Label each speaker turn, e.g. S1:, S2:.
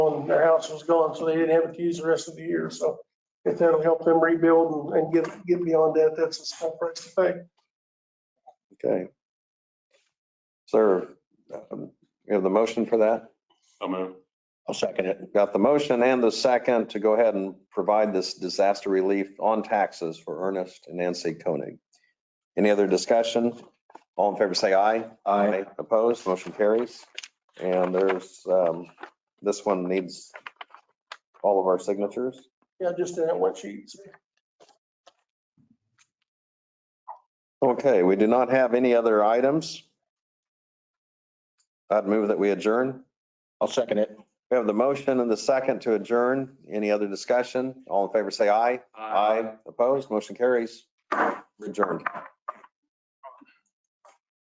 S1: their house was gone, so they didn't have it to use the rest of the year. So if that'll help them rebuild and- and get, get beyond that, that's a small price to pay.
S2: Okay. Sir, um, you have the motion for that?
S3: So moved.
S2: I'll second it. Got the motion and the second to go ahead and provide this disaster relief on taxes for Ernest and Nancy Koenig. Any other discussion? All in favor, say aye. Aye. Opposed, motion carries. And there's, um, this one needs all of our signatures.
S1: Yeah, just in that one sheet.
S2: Okay, we do not have any other items. I'd move that we adjourn.
S4: I'll second it.
S2: We have the motion and the second to adjourn. Any other discussion? All in favor, say aye. Opposed, motion carries. Adjourned.